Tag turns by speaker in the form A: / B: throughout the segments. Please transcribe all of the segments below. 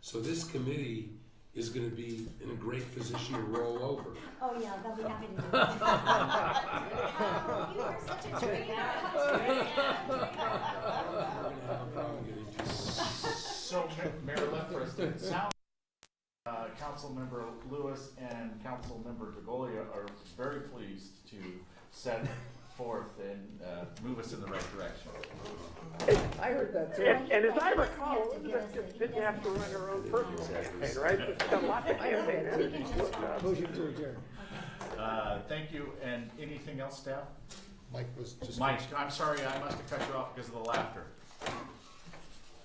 A: So this committee is gonna be in a great position to roll over.
B: Oh, yeah, they'll be happy to do that.
C: You are such a trainer.
A: We're gonna have a problem getting people.
D: So, Ma- Mayor Lefferts, it sounds, uh, Councilmember Lewis and Councilmember DeGolia are very pleased to set forth and, uh, move us in the right direction.
E: I heard that too.
F: And, and as I recall, Elizabeth didn't have to run her own personal campaign, right? She's got lots of campaigns.
E: Motion to adjourn.
D: Uh, thank you, and anything else, staff?
G: Mike was just.
D: Mike, I'm sorry, I must have cut you off because of the laughter.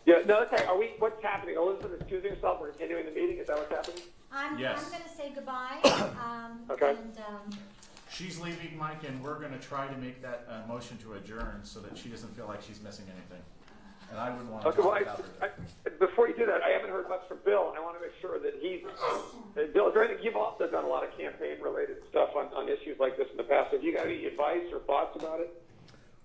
F: Yeah, no, that's right. Are we, what's happening? Elizabeth is choosing herself, we're continuing the meeting, is that what's happening?
B: I'm, I'm
D: Yes.
B: gonna say goodbye, um,
F: Okay.
B: and, um,
D: She's leaving, Mike, and we're gonna try to make that, uh, motion to adjourn so that she doesn't feel like she's missing anything. And I wouldn't wanna
F: Okay, well,
D: talk
F: I,
D: about her.
F: I, before you do that, I haven't heard much from Bill, and I want to make sure that he's, uh, Bill, is there anything, you've also done a lot of campaign-related stuff on, on issues like this in the past. Have you got any advice or thoughts about it?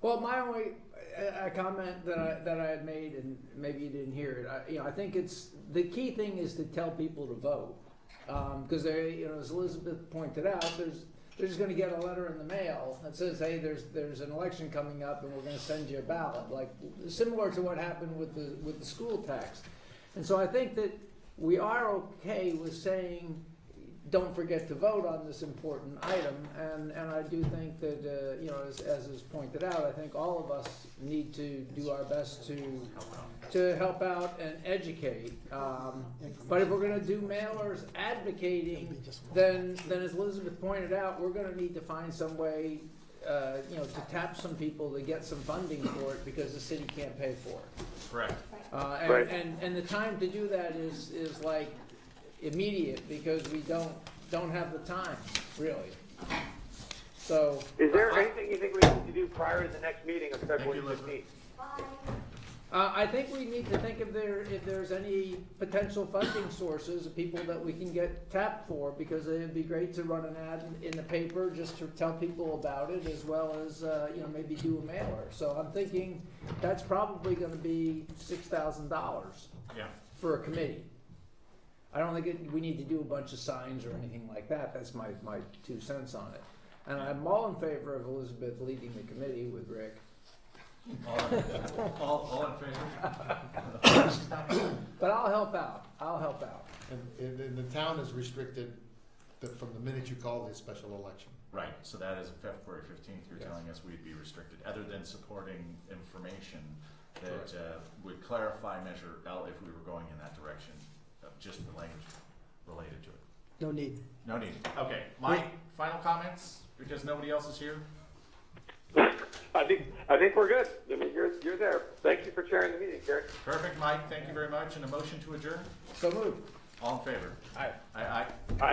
E: Well, my only uh, a comment that I that I had made, and maybe you didn't hear it. I, you know, I think it's the key thing is to tell people to vote because they, you know, as Elizabeth pointed out, there's they're just going to get a letter in the mail that says, "Hey, there's there's an election coming up, and we're going to send you a ballot," like similar to what happened with the with the school tax. And so I think that we are okay with saying don't forget to vote on this important item. And, and I do think that, uh, you know, as, as is pointed out, I think all of us need to do our best to, to help out and educate. Um, but if we're gonna do mailers advocating, then, then as Elizabeth pointed out, we're gonna need to find some way, uh, you know, to tap some people to get some funding for it because the city can't pay for it.
D: Correct.
E: Uh,
F: Right.
E: and, and, and the time to do that is, is like immediate, because we don't, don't have the time, really. So,
F: Is there anything you think we need to do prior to the next meeting of February
D: Uh-huh. you, Elizabeth.
F: fifteenth?
B: bye.
E: uh, I think we need to think if there, if there's any potential funding sources, people that we can get tapped for, because it'd be great to run an ad in- in the paper, just to tell people about it, as well as, uh, you know, maybe do a mailer. So I'm thinking that's probably gonna be six thousand dollars.
D: Yeah.
E: for a committee. I don't think it, we need to do a bunch of signs or anything like that, that's my, my two cents on it. And I'm all in favor of Elizabeth leading the committee with Rick.
D: All, all, all in favor? She's not here.
E: But I'll help out, I'll help out.
G: And, and, and the town is restricted that from the minute you call the special election.
D: Right, so that is February fifteenth, you're
G: Yes.
D: telling us we'd be restricted, other than supporting information
G: Correct.
D: that uh, would clarify Measure L if we were going in that direction, of just the language related to it.
H: No need.
D: No need. Okay, Mike, final comments, because nobody else is here?
F: I think, I think we're good. I mean, you're, you're there. Thank you for chairing the meeting, Gary.
D: Perfect, Mike, thank you very much, and a motion to adjourn?
E: So moved.
D: All in favor?
E: Aye.
D: Aye, aye.